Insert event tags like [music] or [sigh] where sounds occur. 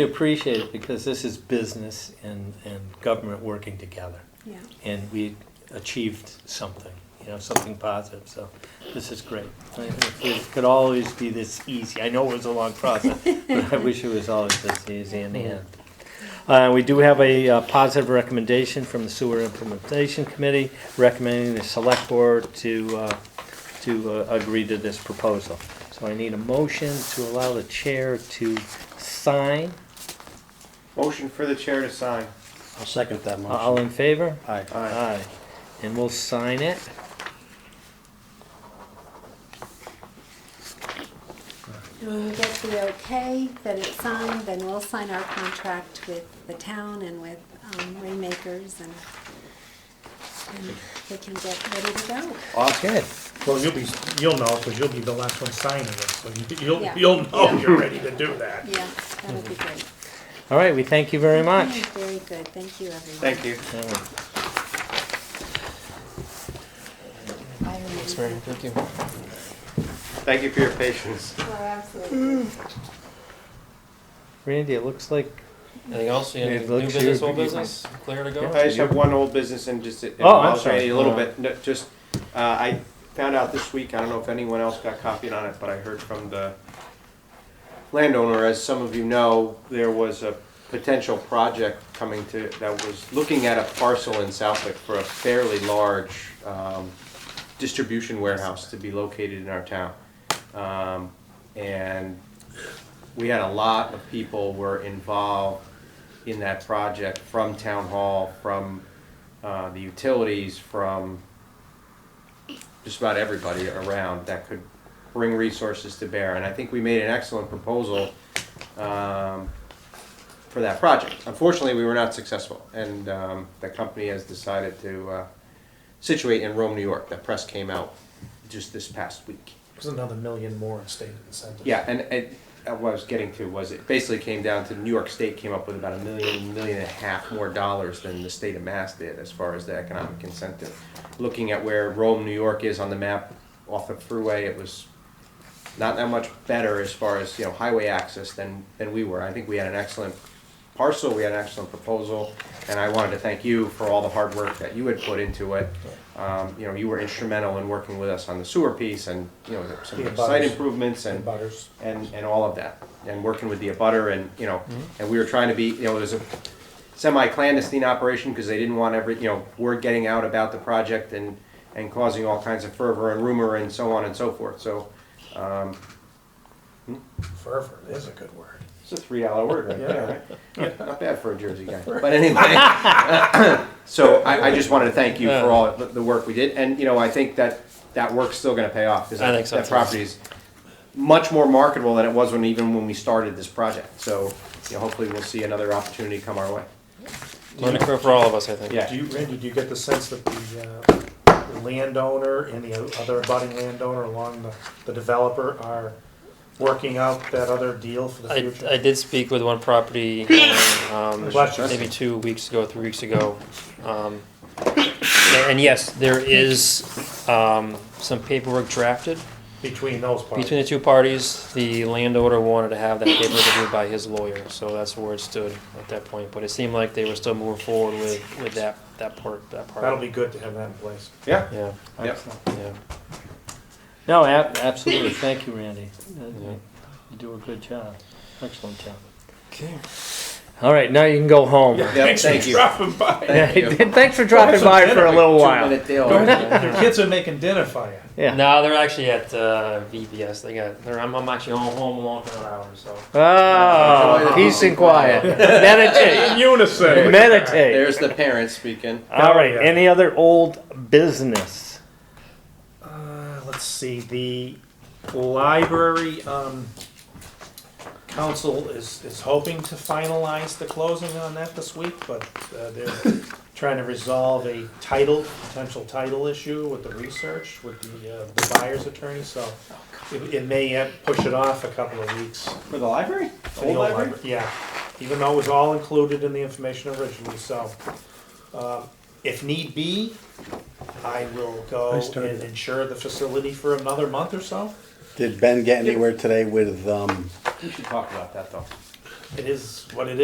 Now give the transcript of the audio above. We appreciate it because this is business and, and government working together. Yeah. And we achieved something, you know, something positive, so this is great. I mean, If it could always be this easy, I know it was a long process, but I wish it was always this easy in the end. Uh, we do have a uh, positive recommendation from the Sewer Implementation Committee recommending the Select Board to, uh, to uh, agree to this proposal. So I need a motion to allow the chair to sign. Motion for the chair to sign. I'll second that All motion. in favor? Aye. Aye. And we'll sign it. And When we get the okay, that it's signed, then we'll sign our contract with the town and with um, Rainmakers and, and they can get ready to go. Good. Well, you'll be, you'll know, because you'll be the last one signing it, so you- you'll, Yeah. you'll know you're ready to do that. Yeah, that'll be great. All right, we thank you very much. Very good. Thank you, everyone. Thank you. Thanks, Mary. Thank you for your patience. absolutely. Randy, it looks like, Anything else? Any It new looks business, you- old business? Clear to go? I just have one old business and just, it Oh, I'm involves sorry. Randy a little All bit, No, just, uh, I found out this week, I don't know if anyone else got copied on it, but I heard from the landowner, as some of you know, there was a potential project coming to, that was looking at a parcel in Southwick for a fairly large, um, distribution warehouse to be located in our town. Um, and we had a lot of people were involved in that project from town hall, from uh, the utilities, from just about everybody around that could bring resources to bear. And I think we made an excellent proposal um, for that project. Unfortunately, we were not successful, and um, the company has decided to uh, situate in Rome, New York. That press came out just this past week. There's another million more in state incentives. Yeah, and, and uh, what I was getting to was it basically came down to New York State came up with about a million, million and a half more dollars than the state of Mass did as far as the economic incentive. Looking at where Rome, New York is on the map off the thruway, it was not that much better as far as, you know, highway access than, than we were. I think we had an excellent parcel, we had an excellent proposal, and I wanted to thank you for all the hard work that you had put into it. Um, you know, you were instrumental in working with us on the sewer piece and, you know, The some abutters. site improvements and And butters. and, and all of that, and working with the abutter and, you know, and we were trying to be, you know, it was a semi-clandestine operation because they didn't want every, you know, word getting out about the project and, and causing all kinds of fervor and rumor and so on and so forth, so, um, Fervor is a good word. it's a three-hour word right there, right? Not bad for a Jersey guy, but anyway. So I, I just wanted to thank you for all the, the work we did, and, you know, I think that, that work's still gonna pay off, because I think so, that too. property is much more marketable than it was when, even when we started this project, so, you know, hopefully we'll see another opportunity come our way. Learning curve for all of us, I think. Yeah, Do you, Randy, do you get the sense that the, uh, the landowner and the other budding landowner along the, the developer are working out that other deal for the I, future? I did speak with one property, um, Bless you. maybe two weeks ago, three weeks ago. Um, and yes, there is, um, some paperwork drafted Between those parties. between the two parties. The landowner wanted to have that paperwork reviewed by his lawyer, so that's where it stood at that point. But it seemed like they were still moving forward with, with that, that part, that part. That'll be good to have that in place. yeah, Yeah, yeah. yeah. no, ab- absolutely, thank you, Randy. Uh, Yeah. You do a good job, excellent job. Okay. All right, now you can go home. Yeah, thank you. Dropping by. Thank you. [laughs] Thanks for dropping by for a little while. Two-minute deal. Your kids are making dinner for you. Yeah. No, they're actually at uh, VPS. They got. They're, I'm, I'm actually home, home alone for another hour. So Oh, peace and quiet. [laughs] Meditate, Unison. meditate. There's the parents speaking. All right, any other old business? Uh, let's see, the library, um, council is, is hoping to finalize the closing on that this week, but, uh, they're trying to resolve a title, potential title issue with the research, with the, uh, the buyer's attorney, so it, it may uh, push it off a couple of weeks. For the library? for the Old library? libra- Yeah, even though it was all included in the information originally, so, uh, if need be, I will go I started and it. insure the facility for another month or so. Did Ben get anywhere today with, um, We should talk about that, though. it is what it is.